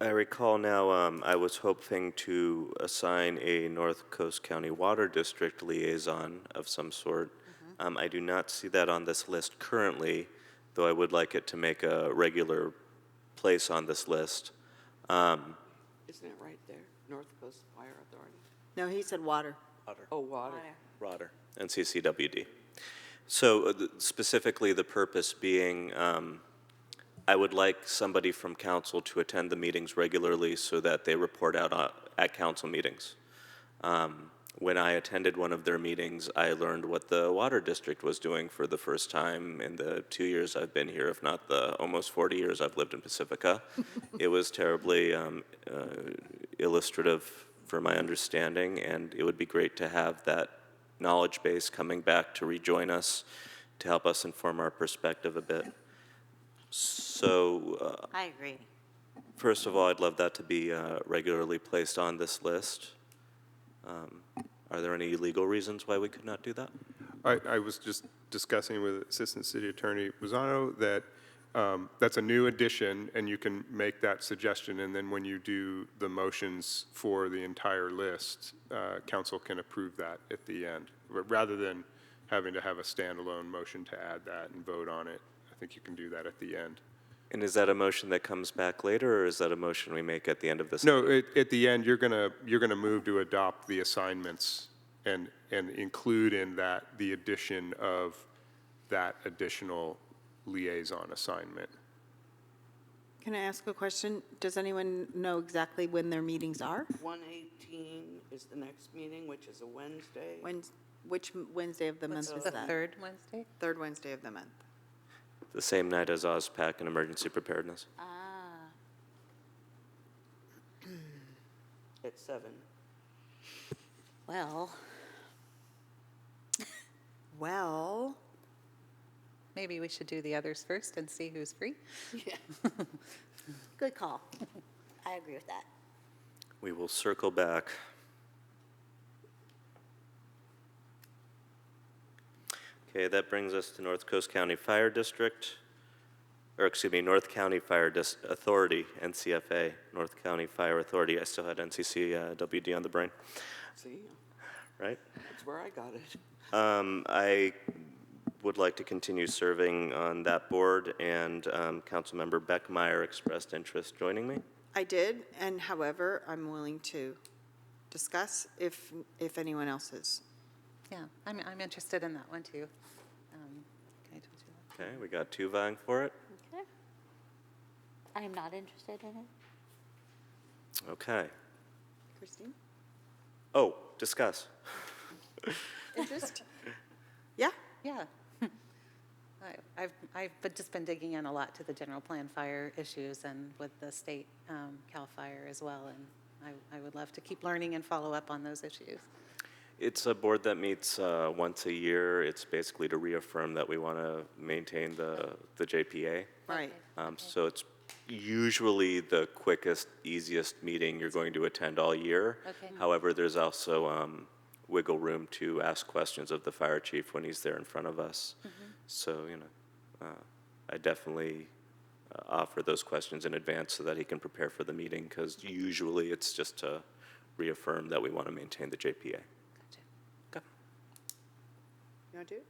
I recall now, um, I was hoping to assign a North Coast County Water District liaison of some sort. Um, I do not see that on this list currently, though I would like it to make a regular place on this list. Um, Isn't it right there? North Coast Fire Authority? No, he said water. Oh, water. Roder. And CCWD. So uh, th- specifically, the purpose being, um, I would like somebody from council to attend the meetings regularly so that they report out uh, at council meetings. Um, When I attended one of their meetings, I learned what the water district was doing for the first time in the two years I've been here, if not the almost 40 years I've lived in Pacifica. It was terribly um, uh, illustrative for my understanding, and it would be great to have that knowledge base coming back to rejoin us, to help us inform our perspective a bit. So, uh, I agree. first of all, I'd love that to be uh, regularly placed on this list. Um, are there any legal reasons why we could not do that? I, I was just discussing with Assistant City Attorney Rosano that um, that's a new addition, and you can make that suggestion, and then when you do the motions for the entire list, uh, council can approve that at the end, r- rather than having to have a standalone motion to add that and vote on it. I think you can do that at the end. And is that a motion that comes back later, or is that a motion we make at the end of this? No, at, at the end, you're gonna, you're gonna move to adopt the assignments and, and include in that the addition of that additional liaison assignment. Can I ask a question? Does anyone know exactly when their meetings are? 118 is the next meeting, which is a Wednesday. When, which m- Wednesday of the month is The that? third Wednesday? Third Wednesday of the month. The same night as OSPAC and emergency preparedness. At seven. Well, Well, maybe we should do the others first and see who's free. Good call. I agree with that. We will circle back. Okay, that brings us to North Coast County Fire District, or excuse me, North County Fire Dis- Authority, NCFA, North County Fire Authority. I still had NCC uh, WD on the brain, See, right? that's where I got it. Um, I would like to continue serving on that board, and um, Councilmember Beckmeyer expressed interest joining me. I did, and however, I'm willing to discuss if, if anyone else is. Yeah, I'm, I'm interested in that one too. Um, I told you that. Okay, we got two vying for it. Okay. I am not interested in it. Okay. Christine? Oh, discuss. Interest? Yeah, Yeah. I- I've, I've been- just been digging in a lot to the general plan fire issues and with the state um, CAL FIRE as well. And I, I would love to keep learning and follow up on those issues. It's a board that meets uh, once a year. It's basically to reaffirm that we want to maintain the, the JPA. right. Um, So it's usually the quickest, easiest meeting you're going to attend all year. Okay. However, there's also um, wiggle room to ask questions of the fire chief when he's there in front of us. So, you know, uh, I definitely uh, offer those questions in advance so that he can prepare for the meeting, because usually it's just to reaffirm that we want to maintain the JPA. Gotcha. You want to do? it?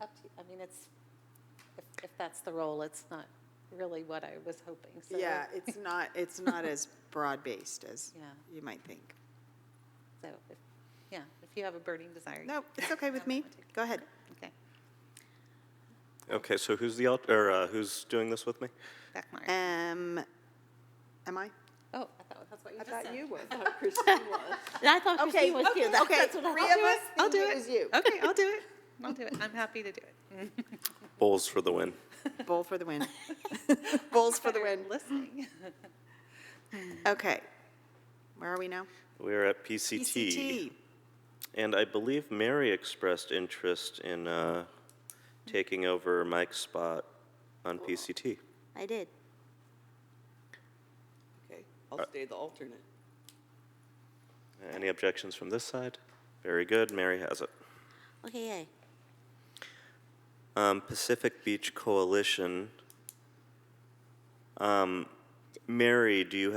Up to, I mean, it's, if, if that's the role, it's not really what I was hoping, so. Yeah, it's not, it's not as broad-based as Yeah. you might think. So, if- yeah, if you have a burning desire. you- No, it's okay with me. Go ahead. Okay, Okay, so who's the, alt- or uh, who's doing this with me? back mark. Um, am I? Oh, I thought, that's what you I just thought said. you were. And I thought Christine was here. That- okay, That's what I three thought. of us. I'll do thinking it. it was you. Okay, I'll do it. I'll do it. I'm happy to do it. Bowls for the win. Bowl for the win. Bowls for the win. Better Listening. Okay. Where are we now? E We're at E PCT. And I believe Mary expressed interest in uh, taking over Mike's spot on PCT. I did. Okay, I'll stay the alternate. Any objections from this side? Very good, Mary has it. Okay, yay. Um, Pacific Beach Coalition. Um, Mary, do you have